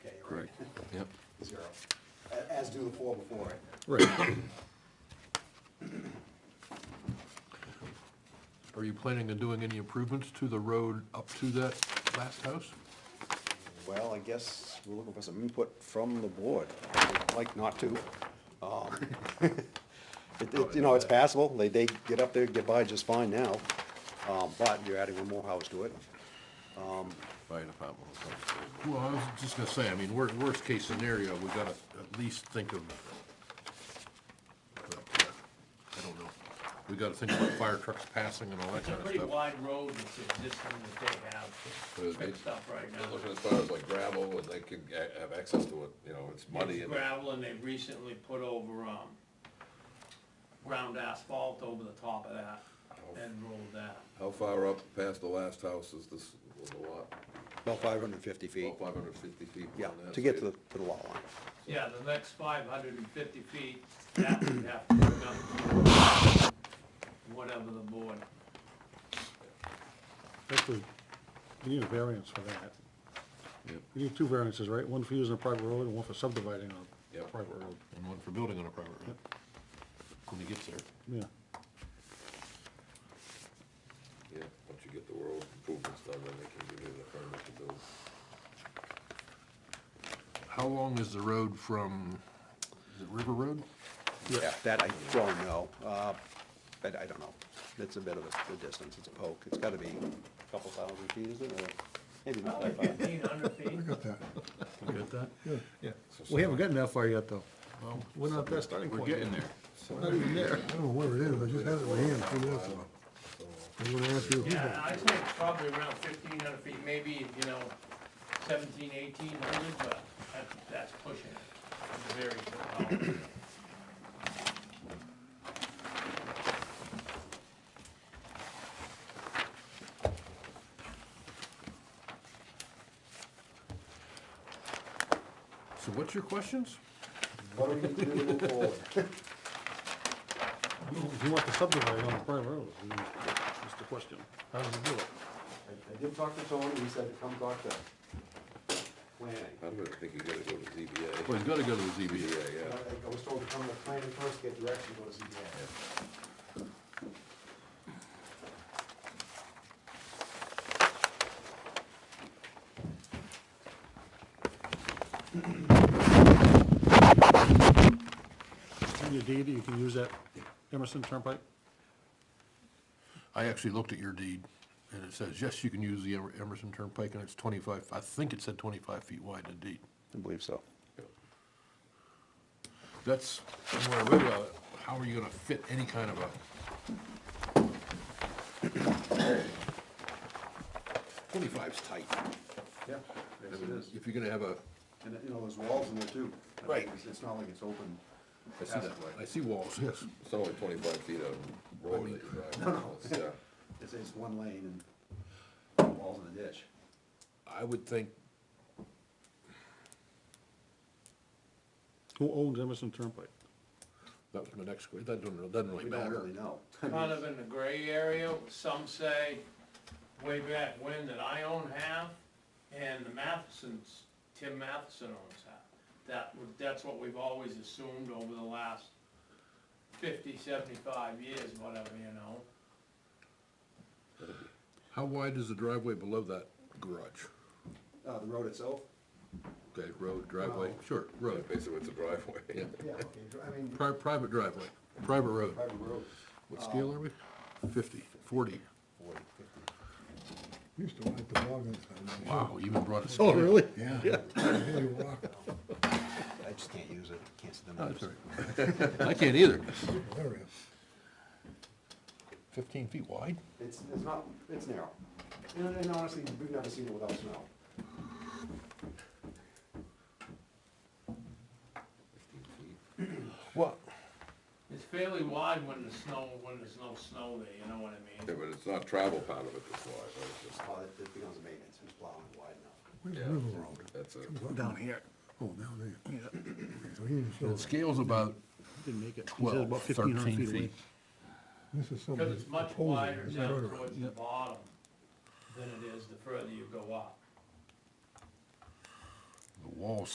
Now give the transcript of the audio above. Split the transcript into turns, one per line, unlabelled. Yep.
zero, a- as do the four before it.
Right. Are you planning on doing any improvements to the road up to that last house?
Well, I guess we're looking for some input from the board. I'd Like not to. Um, It, it, you know, it's passable. They, they get up there, get by just fine now. Um, but you're adding one more house to it.
Fire department. Well, I was just gonna say, I mean, worst, worst case scenario, we gotta at least think of, but, uh, I don't know. We gotta think about fire trucks passing and all that
It's a
kind of
pretty
stuff.
wide road that's existing that they have fixed up right
They're looking
now.
as far as like gravel, and they can a- have access to it, you know, it's muddy
It's
and.
gravel and they've recently put over, um, ground asphalt over the top of that
Oh.
and rolled that.
How far up past the last house is this, was the lot?
About five hundred and fifty feet.
About five hundred fifty feet.
Yeah,
beyond that,
to get to
so
the, to the lot line.
Yeah, the next five hundred and fifty feet, that we have to bring up, whatever the board.
Actually, you need a variance for that.
Yep.
You need two variances, right? One for using a private road and one for subdividing on a
Yep.
private road.
And one for building on a private road. When he gets there.
Yeah.
Yeah, once you get the road improvements done, then they can give you the permit to build.
How long is the road from, is it River Road?
Yeah, that I don't know. Uh, but I don't know. It's a bit of a, a distance. It's a poke. It's gotta be a couple thousand feet, isn't it? Or Maybe not that far.
Fifteen hundred feet,
Got that.
You got that?
Yeah. We haven't gotten that far yet, though. We're not that starting
We're
point.
getting there.
Not even there.
I don't know where it is, I just had it in my hand a few minutes ago. I'm gonna ask you,
yeah, I'd say it's probably around fifteen hundred feet, maybe, you know, seventeen, eighteen hundred, but that's, that's pushing it. It's Very, good.
So what's your questions?
What do we need to do to move forward?
If you want to subdivide on a private road, I mean, that's the question. How do you do it?
I I did talk to Tony, he said to come talk to planning.
I'm gonna think you gotta go to
Well,
ZBA.
he's gotta go to the ZBA.
ZBA,
I
yeah.
I was told to come to planning first, get direction, go to ZBA.
In your deed, you can use that Emerson Turnpike?
I actually looked at your deed, and it says, yes, you can use the Emer- Emerson Turnpike, and it's twenty-five, I think it said twenty-five feet wide in the deed.
I believe so.
That's, when I read about it, how are you gonna fit any kind of a? Twenty-five's tight.
Yeah,
I
yes it
mean,
is.
If you're gonna have a,
And, you know, there's walls in there too. I mean,
Right.
it's- It's not like it's open.
I see that way.
I see walls, yes.
It's only twenty-five feet of road that you're driving. It's, uh,
It's, it's one lane and walls in a ditch.
I would think,
Who owns Emerson Turnpike?
that was my next, que- that doesn't, doesn't really
We don't
matter.
really know.
kind of in the gray area, some say way back when that I own half, and the Mathesons, Tim Matheson owns half. That, would- that's what we've always assumed over the last fifty, seventy-five years, whatever, you know?
How wide is the driveway below that garage?
Uh, the road itself?
Okay, road, driveway,
Well-
sure,
yeah,
road,
Basically, it's a driveway.
yeah,
Yeah, okay, I mean,
pri- private driveway, private road.
private road.
What scale are we? Fifty,
you
forty.
used to ride the dog inside.
Wow, you even brought a
Oh,
scale.
really?
Yeah. Yeah, you walk,
I just can't use it, can't see the
No, that's all right. I can't either.
hilarious.
Fifteen feet wide?
It's, it's not, it's narrow. And, and honestly, we've never seen it without snow.
Well,
It's fairly wide when the snow, when there's no snow there, you know what I
Yeah,
mean?
but it's not travel part of it that's wide, right? It's just-
Uh, it- it becomes a maintenance, it's plowing wide enough.
Where's River Road?
That's it.
Down here.
Oh, down there. So he didn't show
the
us.
scale's about
Didn't make it. He said
twelve,
about 1,500
thirteen
away.
feet.
This is somebody
Because it's much
proposing,
wider
is that
down
right?
towards the bottom than it is the further you go up.
The wall's